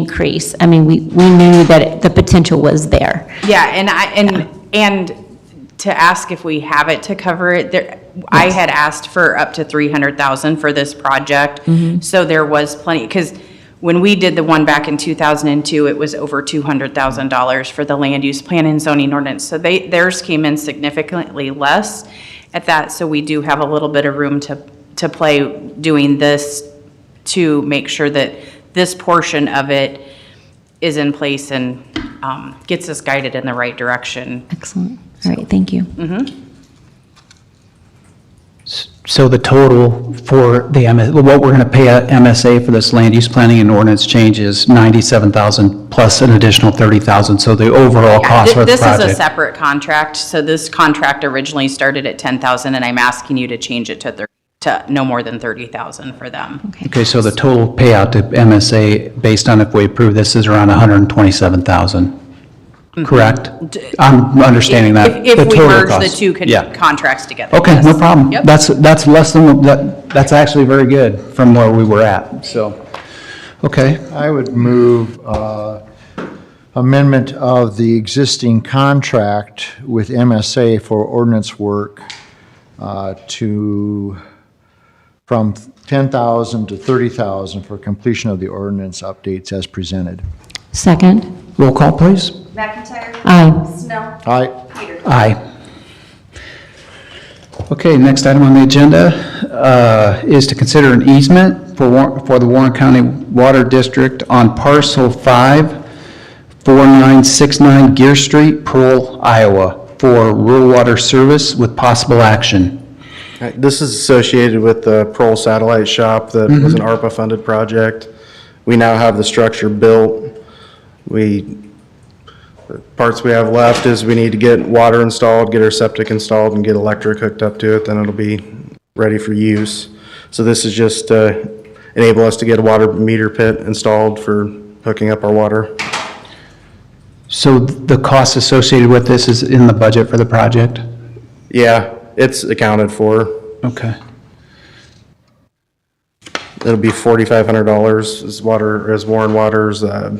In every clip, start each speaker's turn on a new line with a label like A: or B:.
A: increase. I mean, we, we knew that it- the potential was there.
B: Yeah, and I, and, and to ask if we have it to cover it, there, I had asked for up to three hundred thousand for this project. So there was plenty, because when we did the one back in two thousand and two, it was over two hundred thousand dollars for the land use plan and zoning ordinance. So they, theirs came in significantly less at that, so we do have a little bit of room to, to play doing this to make sure that this portion of it is in place and um, gets us guided in the right direction.
A: Excellent. All right, thank you.
C: So the total for the, MS what we're going to pay at MSA for this land use planning and ordinance change is 97,000 plus an additional 30,000, so the overall cost for the
B: This is a
C: project.
B: separate contract, so this contract originally started at 10,000, and I'm asking you to change it to thir- to no more than 30,000 for them.
C: Okay, so the total payout to MSA, based on if we approve this, is around 127,000, correct? I'm understanding that.
B: Mm-hmm. If
C: the
B: if we
C: total
B: merge the
C: cost.
B: two con-
C: Yeah.
B: contracts together.
C: Okay, no
B: yes.
C: problem.
B: Yep.
C: That's, that's less than, that. that's actually very good from where we were at, so, okay.
D: I would move uh, amendment of the existing contract with MSA for ordinance work uh, to, from 10,000 to 30,000 for completion of the ordinance updates as presented.
A: Second? uh,
C: Roll call, please.
E: McIntyre.
A: Aye.
E: Snell.
D: Aye.
E: Peter.
C: Aye. Okay, next item on the agenda uh, is to consider an easement for Warren- for the Warren County Water District on parcel 5, 4969 Gear Street, Pearl, Iowa, for rural water service with possible action.
F: Right, This is associated with the Pearl Satellite Shop that was an ARPA-funded project. We now have the structure built. We, the parts we have left is we need to get water installed, get our septic installed, and get electric hooked up to it, then it'll be ready for use. So this is just to enable us to get a water meter pit installed for hooking up our water.
C: So the cost associated with this is in the budget for the project?
F: Yeah, it's accounted for.
C: Okay.
F: It'll be forty-five hundred dollars is water, is Warren Water's, uh,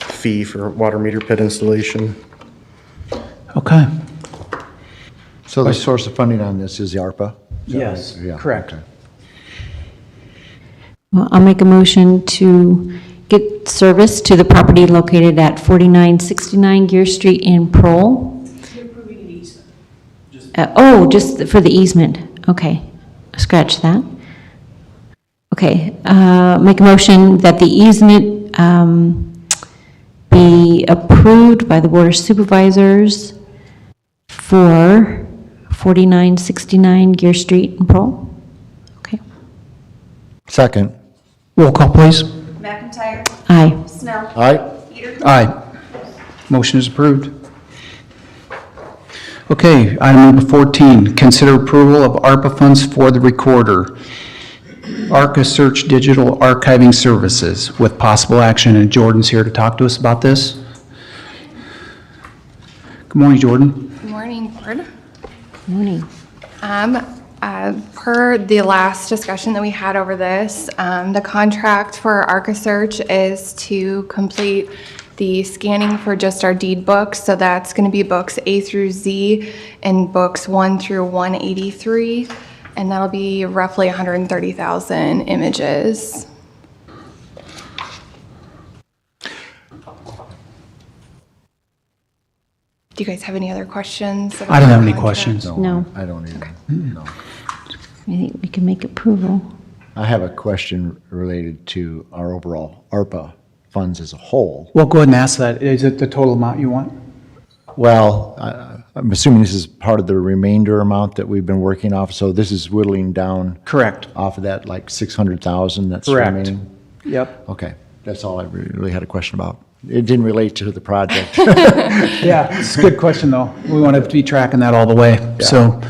F: fee for water meter pit installation.
C: Okay.
D: So the source of funding on this is the ARPA?
C: Yes,
D: Yeah,
C: correct.
A: Well, I'll make a motion to get service to the property located at 4969 Gear Street in Pearl. Uh, Oh, just for the easement. Okay, scratch that. Okay, uh, make a motion that the easement um, be approved by the Board of Supervisors for 4969 Gear Street in Pearl. Okay,
D: Second.
C: Roll call, please.
E: McIntyre.
A: aye.
E: Snell.
D: Aye.
E: Peter.
C: Aye. Motion is approved. Okay, item number 14, consider approval of ARPA funds for the recorder. ARCA Search Digital Archiving Services with possible action, and Jordan's here to talk to us about this. Good morning, Jordan.
G: Good morning, Board.
A: Morning.
G: Um, uh, Per the last discussion that we had over this, um, the contract for ArcaSearch is to complete the scanning for just our deed books. So that's going to be books A through Z and books 1 through 183. And that'll be roughly 130,000 images. Do you guys have any other questions? about
C: I don't have any
G: the contract?
C: questions.
A: No.
D: I don't either. No.
A: I think we can make approval.
D: I have a question related to our overall ARPA funds as a whole.
C: Well, go ahead and ask that. Is it the total amount you want?
D: Well, I- I'm assuming this is part of the remainder amount that we've been working off, so this is whittling down
C: Correct.
D: off of that, like 600,000 that's
C: Correct.
D: remaining?
C: Yep.
D: Okay, that's all I really had a question about. It didn't relate to the project.
C: Yeah, it's a good question, though. We want to be tracking that all the way, so.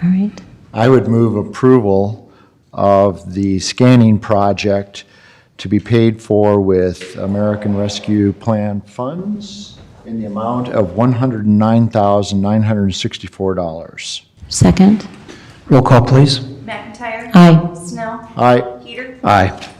A: All right.
D: I would move approval of the scanning project to be paid for with American Rescue Plan funds in the amount of $109,964.
A: Second?
C: Roll call, please.
E: McIntyre.
A: Aye.
E: Snell.
D: Aye.
E: Peter.
C: Aye.